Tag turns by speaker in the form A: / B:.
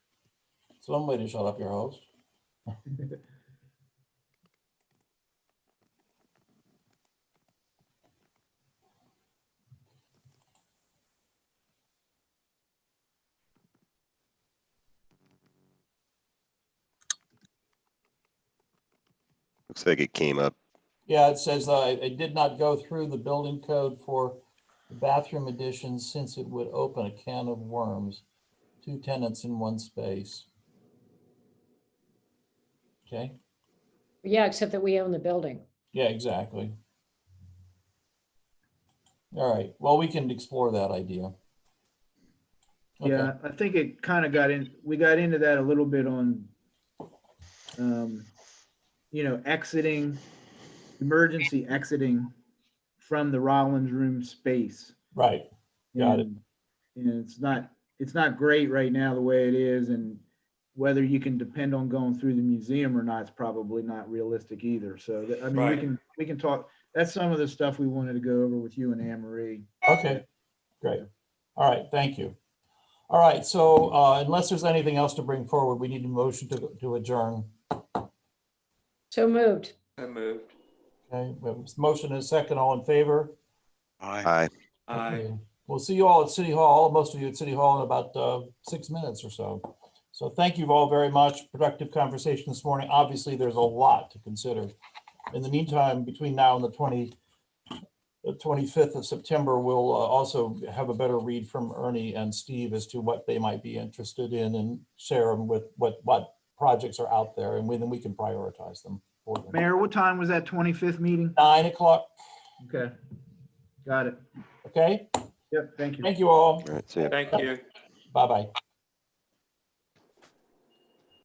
A: It's one way to shut up your host.
B: Looks like it came up.
A: Yeah, it says, uh, I I did not go through the building code for the bathroom additions since it would open a can of worms. Two tenants in one space. Okay,
C: Yeah, except that we own the building.
A: yeah, exactly. All right, well, we can explore that idea. Okay.
D: Yeah, I think it kind of got in, we got into that a little bit on, um, you know, exiting, emergency exiting from the Rollins room space.
A: Right, Got it.
D: And- And it's not, it's not great right now the way it is and whether you can depend on going through the museum or not is probably not realistic either. So, that- I mean, we
E: Right.
D: can, we can talk, that's some of the stuff we wanted to go over with you and Anne Marie.
A: okay, great. All right, thank you. All right, so uh, unless there's anything else to bring forward, we need a motion to to adjourn.
C: So moved.
E: I moved.
A: Okay, we have a motion and a second, all in favor?
F: Aye.
B: Aye.
E: I,
A: Okay. We'll see you all at City Hall, most of you at City Hall in about uh, six minutes or so. So thank you all very much. Productive conversation this morning. Obviously, there's a lot to consider. In the meantime, between now and the 20, the 25th of September, we'll uh, also have a better read from Ernie and Steve as to what they might be interested in and share them with what, what projects are out there and then we can prioritize them. for them.
D: Mayor, what time was that 25th meeting?
A: Nine o'clock,
D: Okay. Got it.
A: okay?
D: Yep, thank you.
A: Thank you all.
B: All right, see ya.
E: thank you.
A: Bye-bye.